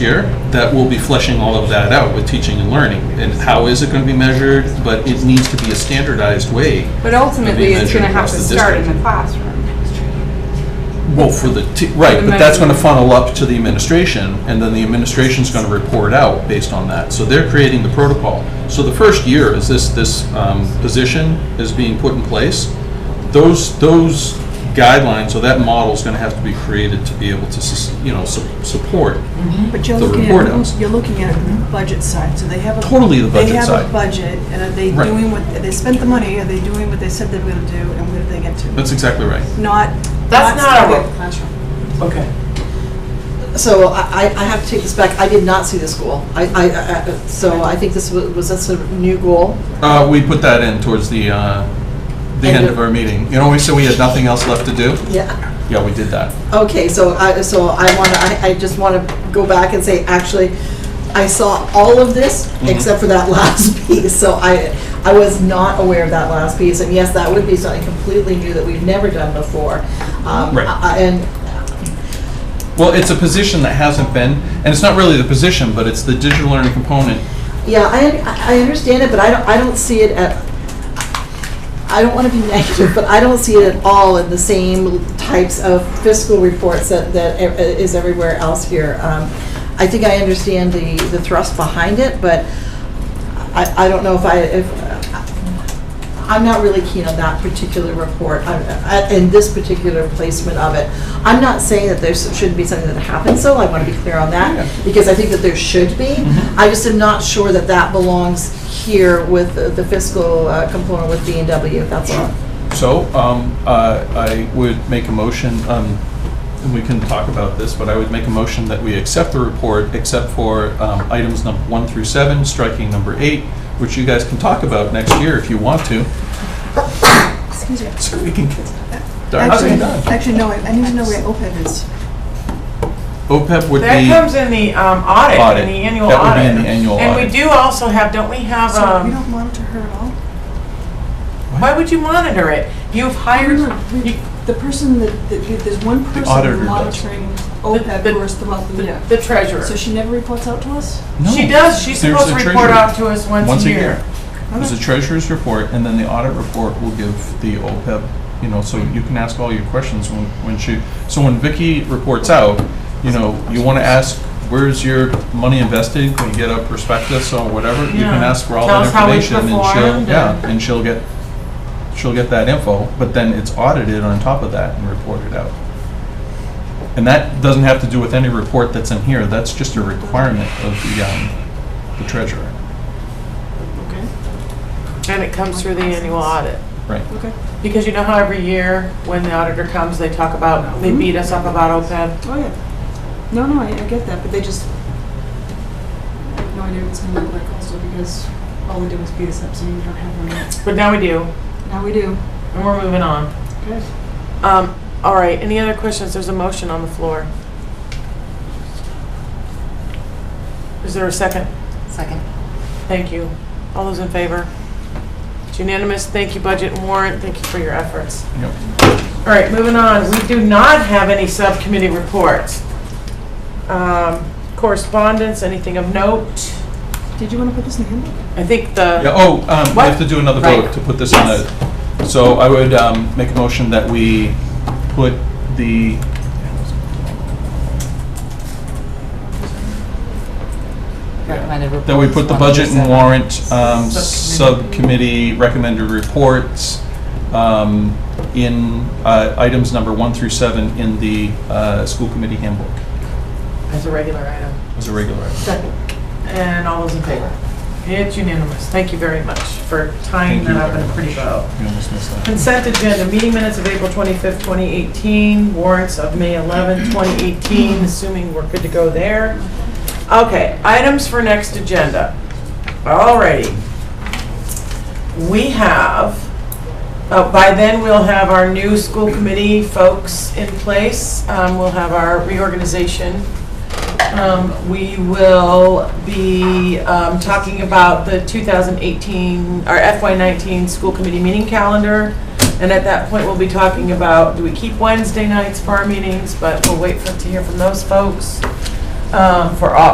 year that will be fleshing all of that out with teaching and learning. And how is it going to be measured? But it needs to be a standardized way. But ultimately, it's measured going to have across to the start in district. the classroom. Well, for the, t- right, The but that's going to measurement. funnel up to the administration, and then the administration's going to report out based on that. So they're creating the protocol. So the first year is this, this um, position is being put in place. Those, those guidelines, or that model's going to have to be created to be able to, sus- you know, su- support. But you're the looking report at, outs. you're looking at the budget side, so they have a. Totally the budget They have side. a budget, and are they Right. doing what, they spent the money, are they doing what they said they were gonna do, and where did they get to? That's exactly right. Not. That's not our starting at work. the classroom. Okay. So I, I I have to take this back. I did not see this goal. I, I, I- I- so I think this was, was this a new goal? Uh, we put that in towards the, uh, the End end of- of our meeting. You know, we said we had nothing else left to do? Yeah. Yeah, we did that. Okay, so I, so I want to, I, I just want to go back and say, actually, I saw all of this Mhm. except for that last piece. So I, I was not aware of that last piece. And yes, that would be something completely new that we've never done before. Um, Right. I- I- And Well, it's a position that hasn't been, and it's not really the position, but it's the digital learning component. Yeah, I, I understand it, but I don't, I don't see it at, I don't want to be negative, but I don't see it at all in the same types of fiscal reports that, that e- is everywhere else here. Um, I think I understand the, the thrust behind it, but I, I don't know if I, if, I'm not really keen on that particular report, I'm- I- and this particular placement of it. I'm not saying that there shouldn't be something that happens, so I want to be clear on Yeah. that, because I think that there should be. I just am not sure that that belongs here with the- the fiscal uh, component with B and W, that's all. So, um, uh, I would make a motion, um, and we can talk about this, but I would make a motion that we accept the report except for, um, items number one through seven, striking number eight, which you guys can talk about next year if you want to. Excuse me. So we can get darn Actually, thing done. actually, no, I I need to know where OPEB is. OPEB would be. That comes in the um, audit, Audit. in the annual audit. That would be in the annual And audit. we do also have, don't we have, So we um, don't monitor her at all? why would you monitor it? You've hired, No, no, we- you- The person that, that- there's one auditor person does. monitoring OPEB the- for us throughout the the year. the treasurer. So she never reports out to us? No. She does, she's There's supposed to the report treasurer. out to us once a year. There's a treasurer's report, and then the audit report will give the OPEB, you know, so you can ask all your questions when, when she, so when Vicky reports out, you know, you want to ask, where's your money invested? Can you get a prospectus or whatever? You can Yeah. ask for all Tell that us how we information, and she'll, performed yeah, and- and she'll get, she'll get that info, but then it's audited on top of that and reported out. And that doesn't have to do with any report that's in here, that's just a requirement of the, um, the treasurer, And it comes through the annual audit. right? Okay, Because you know how every year, when the auditor comes, they talk about, Mm-hmm. they beat us up about E OPEB? oh yeah. No, no, I, I get that, but they just, I have no idea what it's gonna look like also because all they do is beat us up, so you don't have one yet. But now we do, Now we do. and we're moving on. Okay. Um, All right, any other questions? There's a motion on the floor. Is there a second? Second. Thank you. All those in favor? It's unanimous. Thank you, Budget and Warrant. Thank you for your efforts. Yep. All right, moving on. We do not have any subcommittee reports. Um, Correspondence, anything of note? Did you wanna put this in the handbook? I think the, Yeah, oh, um, we have to do another Right. vote to put this on a, so I would, um, make a motion that we put the, Recommended report. that we put the budget and warrant, um, Subcommittee. subcommittee recommended reports, um, in, uh, items number one through seven in the, uh, school committee handbook as a regular item. as a regular item. And all those in favor? It's unanimous. Thank you very much for tying Thank you that up in very a pretty much. bow. You almost missed that. Consent agenda, meeting minutes of April 25th, 2018, warrants of May 11th, 2018, assuming we're good to go there. Okay, items for next agenda. Alrighty. We have, uh, by then, we'll have our new school committee folks in place. Um, We'll have our reorganization. Um, We will be um, talking about the 2018, our FY19 school committee meeting calendar. And at that point, we'll be talking about, do we keep Wednesday nights for our meetings? But we'll wait for, to hear from those folks um, for all,